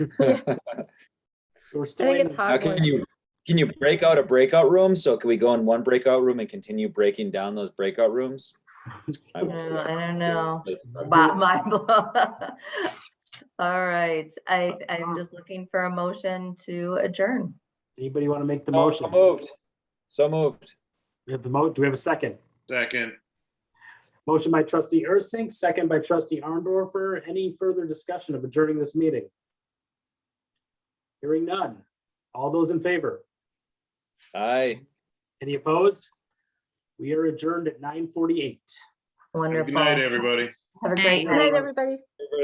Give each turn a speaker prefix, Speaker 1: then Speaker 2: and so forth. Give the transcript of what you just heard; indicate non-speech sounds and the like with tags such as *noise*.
Speaker 1: We're
Speaker 2: I
Speaker 1: still
Speaker 2: think
Speaker 1: in,
Speaker 2: it's
Speaker 3: *laughs* How can
Speaker 2: Hogwarts.
Speaker 3: you, can you break out a breakout room? So can we go in one breakout room and continue breaking down those breakout rooms? I would say
Speaker 2: No, I don't
Speaker 3: that.
Speaker 2: know.
Speaker 3: But-
Speaker 2: Wow, mind blown. *laughs* All right, I,
Speaker 3: Uh-huh.
Speaker 2: I'm just looking for a motion to adjourn.
Speaker 1: anybody want to make the
Speaker 3: Oh, So
Speaker 1: motion?
Speaker 3: moved. So moved.
Speaker 1: We have the mo, do we have a second?
Speaker 4: Second.
Speaker 1: Motion by trustee Ursink, second by trustee Arndorfer. Any further discussion of adjourning this meeting? Hearing none. All those in favor?
Speaker 3: Aye.
Speaker 1: Any opposed? We are adjourned at nine forty-eight.
Speaker 4: Have a
Speaker 2: Wonderful.
Speaker 4: Good night, everybody.
Speaker 2: Have a
Speaker 5: Night.
Speaker 2: great
Speaker 5: Good
Speaker 2: night.
Speaker 5: night, everybody.